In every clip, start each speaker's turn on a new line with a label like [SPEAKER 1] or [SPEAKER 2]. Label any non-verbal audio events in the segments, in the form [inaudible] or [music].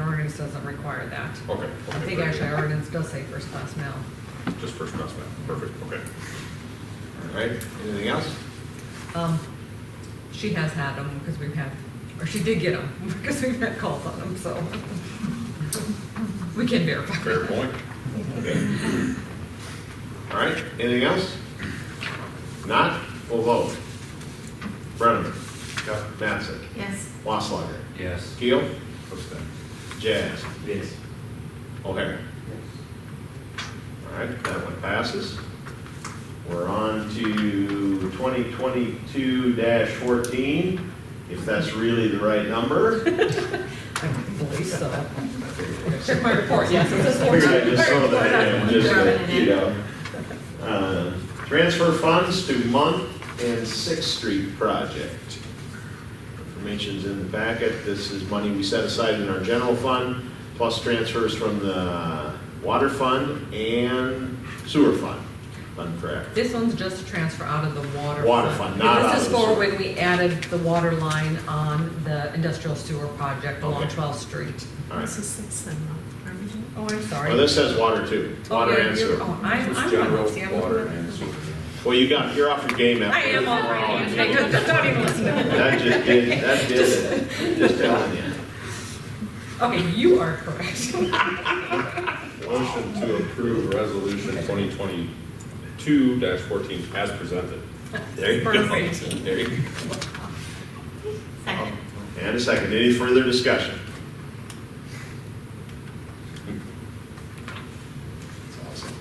[SPEAKER 1] ordinance doesn't require that. I
[SPEAKER 2] Okay. okay,
[SPEAKER 1] think
[SPEAKER 2] very
[SPEAKER 1] actually
[SPEAKER 2] good.
[SPEAKER 1] our ordinance does say first class mail.
[SPEAKER 2] Just first class mail, perfect, okay.
[SPEAKER 3] All right, anything else?
[SPEAKER 1] Um, she has had them because we've had, or she did get them [laughs] because we've had calls on them, so. We can verify.
[SPEAKER 2] Fair point.
[SPEAKER 3] Okay. All right, anything else? Not, we'll vote. Brenneman. Yep. Mattson.
[SPEAKER 4] Yes.
[SPEAKER 3] Wasslager.
[SPEAKER 5] Yes.
[SPEAKER 3] Keel. What's that? Jazz.
[SPEAKER 5] Yes.
[SPEAKER 3] O'Hara. All right, that one passes. We're on to twenty twenty-two fourteen, if that's really the right number.
[SPEAKER 1] I don't believe so. Check my report, yes, it says
[SPEAKER 3] Figured I
[SPEAKER 1] fourteen.
[SPEAKER 3] just throw that in, just,
[SPEAKER 4] Throw it
[SPEAKER 3] to,
[SPEAKER 4] in.
[SPEAKER 3] you know. Uh, Transfer funds to Month and Sixth Street project. Information's in the packet, this is money we set aside in our general fund, plus transfers from the water fund and sewer fund, if I'm correct.
[SPEAKER 1] This one's just a transfer out of the water.
[SPEAKER 3] Water fund, not out
[SPEAKER 1] This is
[SPEAKER 3] of the
[SPEAKER 1] for
[SPEAKER 3] sewer.
[SPEAKER 1] when we added the water line on the industrial sewer project along
[SPEAKER 3] Okay.
[SPEAKER 1] 12th Street.
[SPEAKER 3] All right,
[SPEAKER 4] This is six then, huh? Are we doing-
[SPEAKER 1] Oh, I'm sorry.
[SPEAKER 3] well, this says water too,
[SPEAKER 1] Oh,
[SPEAKER 3] water
[SPEAKER 1] yeah,
[SPEAKER 3] and
[SPEAKER 1] you're-
[SPEAKER 3] sewer.
[SPEAKER 1] oh, I'm,
[SPEAKER 5] Just
[SPEAKER 1] I'm on,
[SPEAKER 5] general
[SPEAKER 1] see, I'm
[SPEAKER 5] water
[SPEAKER 1] on.
[SPEAKER 5] and sewer.
[SPEAKER 3] Well, you got, you're off your game after.
[SPEAKER 1] I am on,
[SPEAKER 3] Oh,
[SPEAKER 1] I
[SPEAKER 3] gee.
[SPEAKER 1] don't, don't even listen to me.
[SPEAKER 3] That just did, that did it, just telling you.
[SPEAKER 1] Okay, you are correct. [laughs]
[SPEAKER 2] Motion to approve resolution twenty twenty-two fourteen as presented.
[SPEAKER 3] There you go.
[SPEAKER 1] Perfect.
[SPEAKER 3] There you go.
[SPEAKER 4] Second.
[SPEAKER 3] And a second, any further discussion? That's awesome.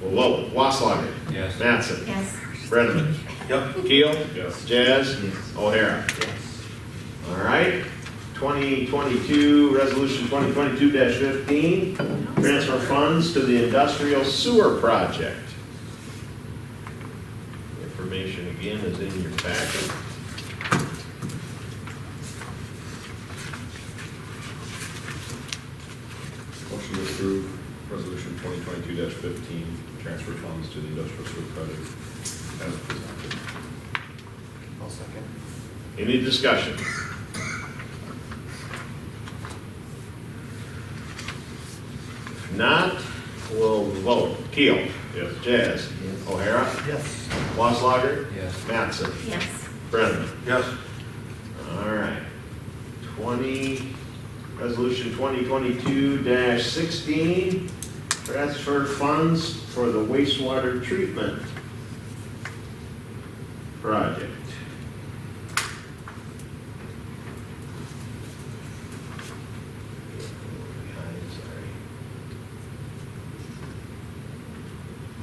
[SPEAKER 3] Well, whoa, Waslager.
[SPEAKER 5] Yes.
[SPEAKER 3] Mattson.
[SPEAKER 4] Yes.
[SPEAKER 3] Brenneman. Yep. Keel.
[SPEAKER 2] Yes.
[SPEAKER 3] Jazz. O'Hara. All right, 2022, Resolution 2022-15, transfer funds to the industrial sewer project. Information again is in your packet.
[SPEAKER 2] Motion to approve resolution twenty twenty-two fifteen, transfer funds to the industrial sewer project as presented.
[SPEAKER 3] Any discussion? If not, we'll vote. Keel.
[SPEAKER 2] Yes.
[SPEAKER 3] Jazz. O'Hara. Yes. Waslager.
[SPEAKER 5] Yes.
[SPEAKER 3] Mattson.
[SPEAKER 4] Yes.
[SPEAKER 3] Brenneman.
[SPEAKER 2] Yes.
[SPEAKER 3] All right. Twenty, resolution twenty twenty-two sixteen, transfer funds for the wastewater treatment project.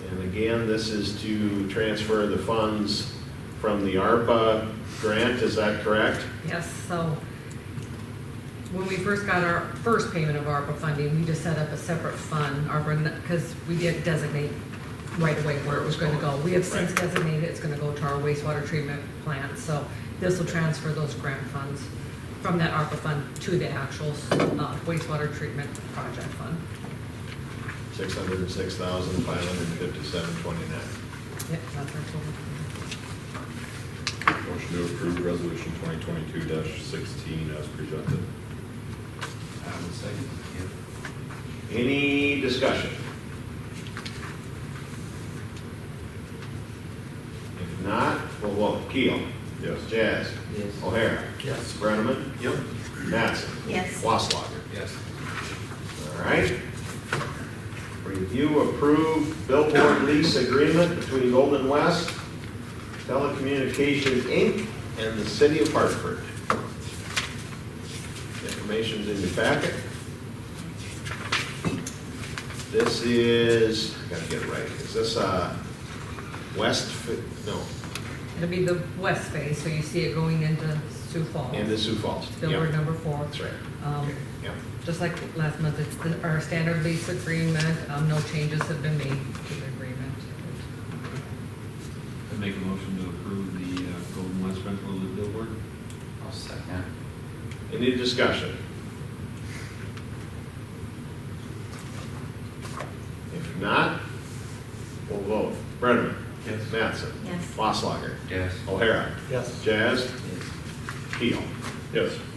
[SPEAKER 3] And again, this is to transfer the funds from the ARPA grant, is that correct?
[SPEAKER 1] Yes, so when we first got our first payment of ARPA funding, we just set up a separate fund, ARPA, because we did designate right away where it was going to go. We have since designated it's going to go to our wastewater treatment plant, so this will transfer those grant funds from that ARPA fund to the actual uh, wastewater treatment project fund.
[SPEAKER 3] Six hundred and six thousand, five hundred and fifty-seven, twenty-nine.
[SPEAKER 1] Yep, that's our total.
[SPEAKER 2] Motion to approve resolution twenty twenty-two sixteen as presented.
[SPEAKER 5] I would say, yeah.
[SPEAKER 3] Any discussion? If not, we'll vote. Keel.
[SPEAKER 2] Yes.
[SPEAKER 3] Jazz.
[SPEAKER 5] Yes.
[SPEAKER 3] O'Hara.
[SPEAKER 5] Yes.
[SPEAKER 3] Brenneman.
[SPEAKER 5] Yep.
[SPEAKER 3] Mattson.
[SPEAKER 4] Yes.
[SPEAKER 3] Wasslager.
[SPEAKER 5] Yes.
[SPEAKER 3] All right. Review approved billboard lease agreement between Golden West Telecommunications, Inc. and the City of Hartford. Information's in your packet. This is, I gotta get it right, is this, uh, West, Fi- no,
[SPEAKER 1] It'll be the west face, so you see it going into Sioux Falls.
[SPEAKER 3] into Sioux Falls?
[SPEAKER 1] Billboard
[SPEAKER 3] Yeah,
[SPEAKER 1] number four.
[SPEAKER 3] That's right.
[SPEAKER 1] Um,
[SPEAKER 3] Yeah.
[SPEAKER 1] Just like last month, it's the- our standard lease agreement, um, no changes have been made to the agreement.
[SPEAKER 6] I'd make a motion to approve the uh, Golden West rental of the billboard.
[SPEAKER 5] I'll second.
[SPEAKER 3] Any discussion? If not, we'll vote. Brenneman.
[SPEAKER 5] Yes.
[SPEAKER 3] Mattson.
[SPEAKER 4] Yes.
[SPEAKER 3] Wasslager.
[SPEAKER 5] Yes.
[SPEAKER 3] O'Hara.
[SPEAKER 5] Yes.
[SPEAKER 3] Jazz. Keel.
[SPEAKER 2] Yes.